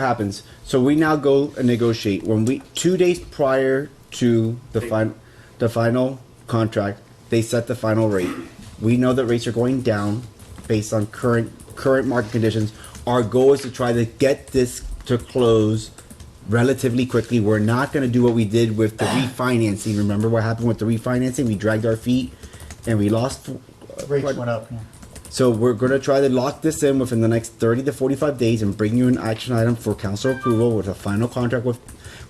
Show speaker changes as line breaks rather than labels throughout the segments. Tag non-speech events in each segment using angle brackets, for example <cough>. what happens. So we now go and negotiate when we two days prior to the final, the final contract, they set the final rate. We know that rates are going down based on current current market conditions. Our goal is to try to get this to close relatively quickly. We're not going to do what we did with the refinancing. Remember what happened with the refinancing? We dragged our feet and we lost.
Rates went up. yeah.
So we're going to try to lock this in within the next 30 to 45 days and bring you an action item for council approval with a final contract with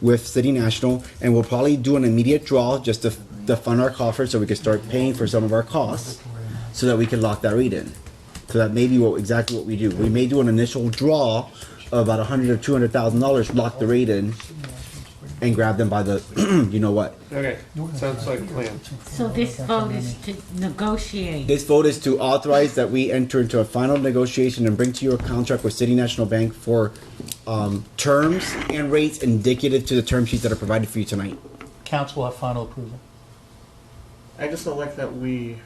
with City National, and we'll probably do an immediate draw just to, to fund our coffers so we can start paying for some of our costs, so that we can lock that rate in. So that may be what exactly what we do. We may do an initial draw of about 100 or 200 thousand dollars, lock the rate in, and grab them by the, <clears throat> you know what?
Okay, sounds like a plan.
So this vote is to negotiate.
This vote is to authorize that we enter into a final negotiation and bring to you a contract with City National Bank for um, terms and rates indicative to the term sheets that are provided for you tonight.
Council will have final approval.
I just don't like that we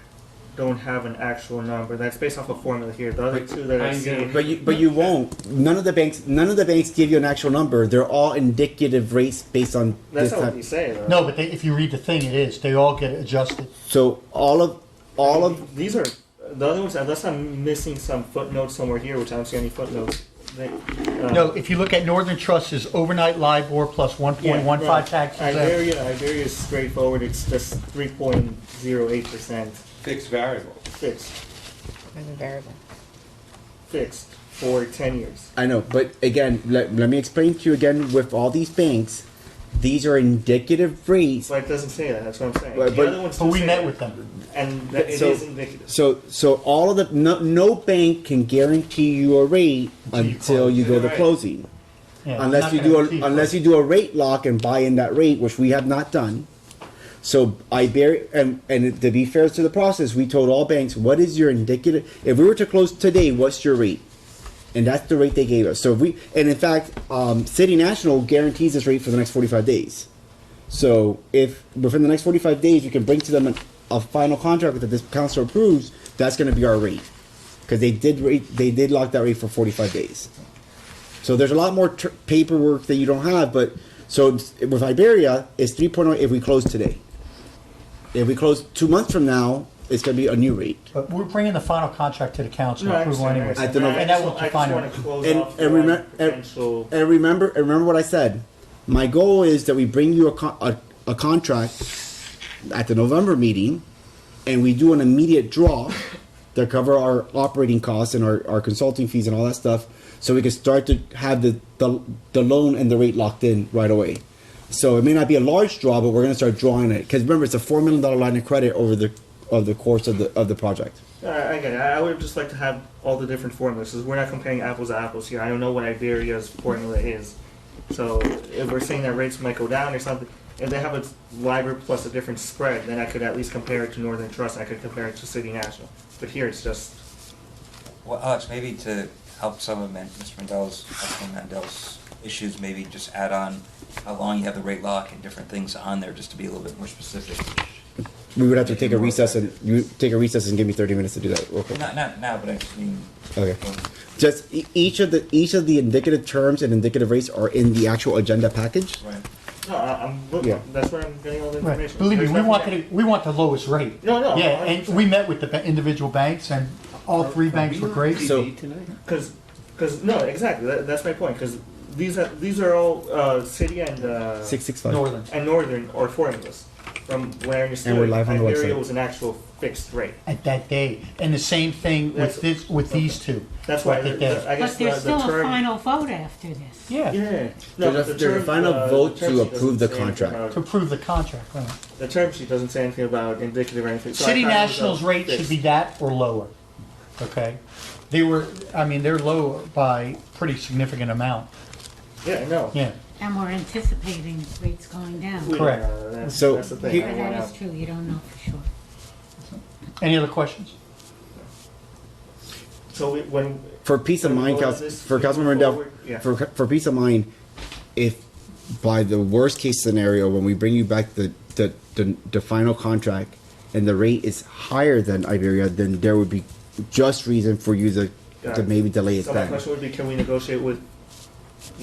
don't have an actual number. That's based off a formula here. The other two that I
I'm
see.
gonna-
But you, but you won't. None of the banks, none of the banks give you an actual number. They're all indicative rates based on
That's
this
not what
type-
you say, though.
No, but they, if you read the thing, it is, they all get adjusted.
So all of, all of,
These are the other ones, unless I'm missing some footnote somewhere here, which I don't see any footnotes. They, uh,
No, if you look at Northern Trust's overnight LIBOR plus one point one five taxes. uh,
Iberia, Iberia is straightforward. It's just 3.08%
Fixed variable.
fixed,
There's a variable.
fixed for 10 years.
I know, but again, let, let me explain to you again with all these banks, these are indicative rates.
So it doesn't say that. That's what I'm saying.
But-
the
but-
other ones
But
do
we
say
met
that,
with them.
and that it is
So-
indicative.
So, so all of the no, no bank can guarantee you a rate
you
until you go to
Right.
closing,
Yeah, we're
unless
not
you
gonna
do a,
achieve
unless
it.
you do a rate lock and buy in that rate, which we have not done. So Iberia, and, and to be fair to the process, we told all banks, what is your indicative? If we were to close today, what's your rate? And that's the rate they gave us. So if we, and in fact, um, City National guarantees this rate for the next forty-five days. So if within the next forty-five days, you can bring to them an, a final contract that this council approves, that's going to be our rate because they did rate, they did lock that rate for forty-five days. So there's a lot more tr- paperwork that you don't have, but so it's- with Iberia, it's three oh, if we close today. If we close two months from now, it's going to be a new rate.
But we're bringing the final contract to the council
No, I
approval
understand,
anyway.
I don't know.
And
understand.
that will
I just
define
wanna
it.
close
And-
off
and
the
remem- and-
potential-
And remember, and remember what I said. My goal is that we bring you a, con- a, a contract at the November meeting, and we do an immediate draw to cover our operating costs and our, our consulting fees and all that stuff, so we can start to have the, the the loan and the rate locked in right away. So it may not be a large draw, but we're going to start drawing it because remember it's a four million dollar line of credit over the of the course of the of the project.
I I get it. I I would just like to have all the different formulas. 'cause we're not comparing apples to apples here. I don't know what Iberia's formula is. So if we're saying that rates might go down or something, if they have a LIBOR plus a different spread, then I could at least compare it to Northern Trust. I could compare it to City National. But here it's just
Well, Alex, maybe to help some of Man- Mr. Mandel's, Councilman Mandel's issues, maybe just add on how long you have the rate lock and different things on there, just to be a little bit more specific.
We would have to take a recess and you take a recess and give me thirty minutes to do that. real quick.
Not, not now, but I just mean.
Okay.
when-
Just e- each of the each of the indicative terms and indicative rates are in the actual agenda package.
Right.
no. I, I'm look,
Yeah.
that's where I'm getting all the
Right.
information.
Believe me,
There's
we
nothing
want
that-
the, we want the lowest rate.
No, no,
Yeah, and we met with the ba- individual banks and all three banks were great.
So-
Because, because no, exactly. That, that's my point. Because these are these are all uh, city and uh,
Six six five.
Northern.
and Northern are formulas. From what I understood,
And we're live on the
Iberia
website.
was an actual fixed rate.
at that day. And the same thing
That's-
with this, with these two.
That's why
Right,
the,
that day.
the, I guess
But
uh, the,
there's
the
still a
term.
final vote after this.
Yeah,
yeah, no,
There's
but
a-
the
there's a
term,
final
uh,
vote
the term
to
sheet
approve
doesn't
the
say anything
contract.
to
About,
approve the contract. right.
the term sheet doesn't say anything about indicative or anything. So I
City
thought it was, uh,
National's rate should
fixed.
be that or lower, okay? They were, I mean, they're low by pretty significant amount,
Yeah, no.
yeah.
And we're anticipating rates going
We
down.
don't
Correct.
know. That's,
So,
that's the thing.
he-
I
But
want
that
out.
is true, you don't know for sure.
Any other questions?
So we, when
For peace of
Well,
mind,
well,
Council,
this-
for Councilmember Rendell,
forward- yeah.
for for peace of mind, if by the worst case scenario, when we bring you back the the, the, the final contract and the rate is higher than Iberia, then there would be just reason for you to,
Got
to
it.
maybe delay it
so my
back.
question would be, can we negotiate with